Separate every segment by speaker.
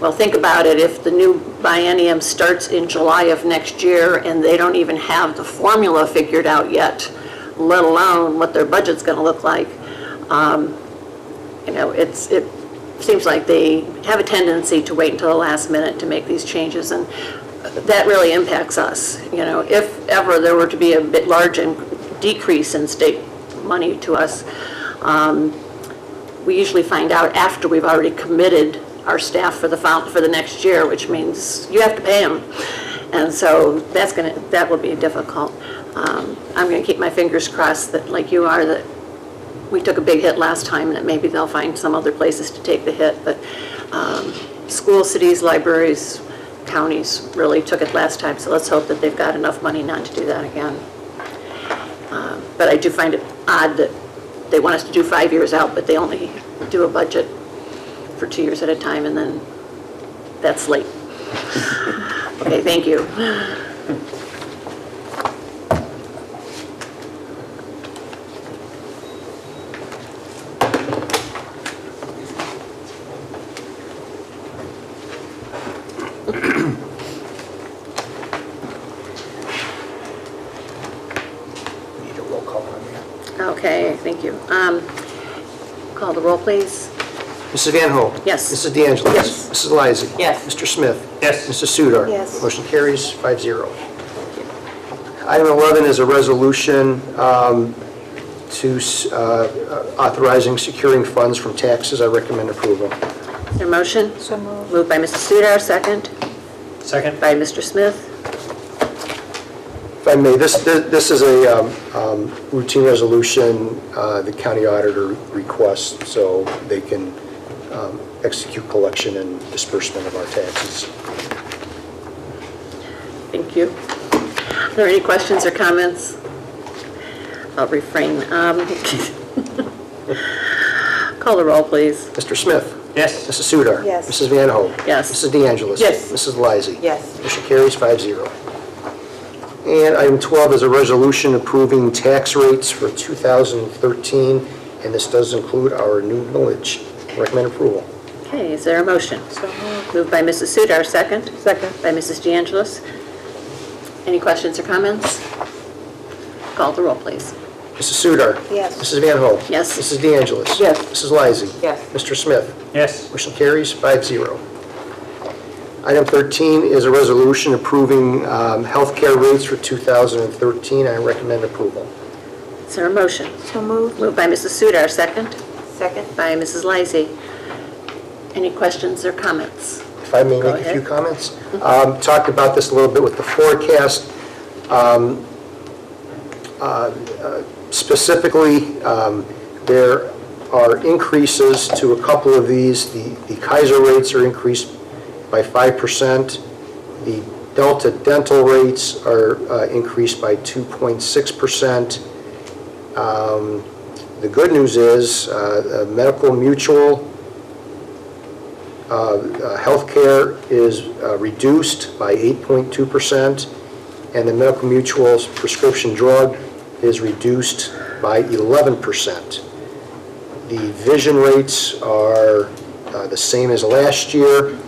Speaker 1: Well, think about it, if the new biennium starts in July of next year and they don't even have the formula figured out yet, let alone what their budget's going to look like, um, you know, it's, it seems like they have a tendency to wait until the last minute to make these changes, and that really impacts us, you know. If ever there were to be a bit large in- decrease in state money to us, we usually find out after we've already committed our staff for the, fol- for the next year, which means you have to pay them. And so that's going to, that will be difficult. Um, I'm going to keep my fingers crossed that, like you are, that we took a big hit last time, and that maybe they'll find some other places to take the hit. But um, school, cities, libraries, counties really took it last time, so let's hope that they've got enough money not to do that again. But I do find it odd that they want us to do five years out, but they only do a budget for two years at a time, and then that's late. Okay, thank you.
Speaker 2: Need a roll call on that.
Speaker 1: Okay, thank you. Um, Call the roll, please.
Speaker 2: Mrs. Van Hoen.
Speaker 1: Yes.
Speaker 2: Mrs. De Angelis.
Speaker 1: Yes.
Speaker 2: Mrs. Lysy.
Speaker 1: Yes.
Speaker 2: Mr. Smith.
Speaker 3: Yes.
Speaker 2: Mrs. Sudar.
Speaker 1: Yes.
Speaker 2: Motion carries five zero. Item 11 is a resolution um, to s- uh, authorizing securing funds from taxes. I recommend approval.
Speaker 1: Is there a motion? So moved. Moved by Mr. Sudar, second
Speaker 3: Second?
Speaker 1: by Mr. Smith.
Speaker 2: If I may, this, this this is a um, um, routine resolution uh, the county auditor requests so they can um, execute collection and disbursement of our taxes.
Speaker 1: Thank you. Are there any questions or comments? I'll refrain. Um, Call the roll, please.
Speaker 2: Mr. Smith?
Speaker 3: Yes.
Speaker 2: Mrs. Sudar.
Speaker 4: Yes.
Speaker 2: Mrs. Van Hoen.
Speaker 1: Yes.
Speaker 2: Mrs. De Angelis.
Speaker 1: Yes.
Speaker 2: Mrs. Lysy.
Speaker 4: Yes.
Speaker 2: Motion carries five zero. And item 12 is a resolution approving tax rates for 2013, and this does include our new village. Recommend approval.
Speaker 1: Okay, is there a motion? Moved by Mrs. Sudar, second. Second. By Mrs. De Angelis. Any questions or comments? Call the roll, please.
Speaker 2: Mrs. Sudar.
Speaker 4: Yes.
Speaker 2: Mrs. Van Hoen.
Speaker 1: Yes.
Speaker 2: Mrs. De Angelis.
Speaker 1: Yes.
Speaker 2: Mrs. Lysy.
Speaker 4: Yes.
Speaker 2: Mr. Smith.
Speaker 3: Yes.
Speaker 2: Motion carries five zero. Item 13 is a resolution approving um, healthcare rates for 2013. I recommend approval.
Speaker 1: Is there a motion?
Speaker 4: So moved.
Speaker 1: Moved by Mrs. Sudar, second.
Speaker 4: Second?
Speaker 1: By Mrs. Lysy. Any questions or comments?
Speaker 2: If I may
Speaker 1: Go
Speaker 2: make a few
Speaker 1: ahead.
Speaker 2: comments. Um, Talked about this a little bit with the forecast. Um, uh, uh, Specifically, um, there are increases to a couple of these. The the Kaiser rates are increased by 5%. The Delta dental rates are uh, increased by 2.6%. Um, The good news is, uh, uh, medical mutual uh, Healthcare is uh, reduced by 8.2%, and the Medical Mutual's prescription drug is reduced by 11%. The vision rates are uh, the same as last year.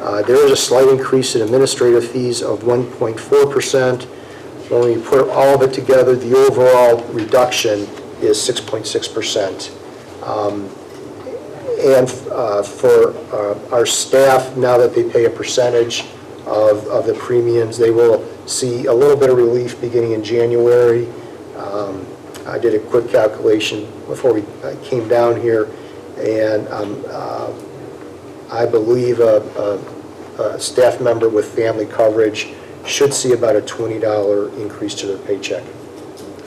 Speaker 2: Uh, There is a slight increase in administrative fees of 1.4%. When we put all of it together, the overall reduction is 6.6%. And uh, for uh, our staff, now that they pay a percentage of, of the premiums, they will see a little bit of relief beginning in January. Um, I did a quick calculation before we uh, came down here, and um, uh, I believe a, a, a staff member with family coverage should see about a $20 increase to their paycheck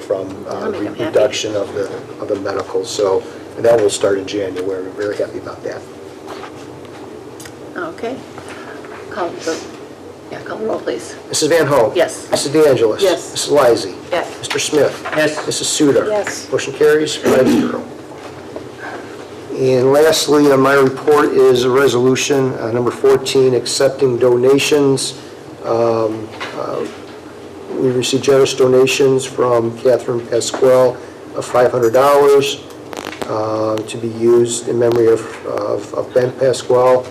Speaker 2: from uh,
Speaker 1: That'll make 'em happy.
Speaker 2: reduction of the, of the medical. So and that will start in January. We're Very happy about that.
Speaker 1: Okay. Call the, yeah, call the roll, please.
Speaker 2: Mrs. Van Hoen.
Speaker 1: Yes.
Speaker 2: Mrs. De Angelis.
Speaker 1: Yes.
Speaker 2: Mrs. Lysy.
Speaker 4: Yes.
Speaker 2: Mr. Smith.
Speaker 3: Yes.
Speaker 2: Mrs. Sudar.
Speaker 4: Yes.
Speaker 2: Motion carries five zero. And lastly, on my report is a resolution, uh, number 14, accepting donations. Um, uh, We received generous donations from Catherine Pasquale of $500 uh, to be used in memory of- of of Ben Pasquale.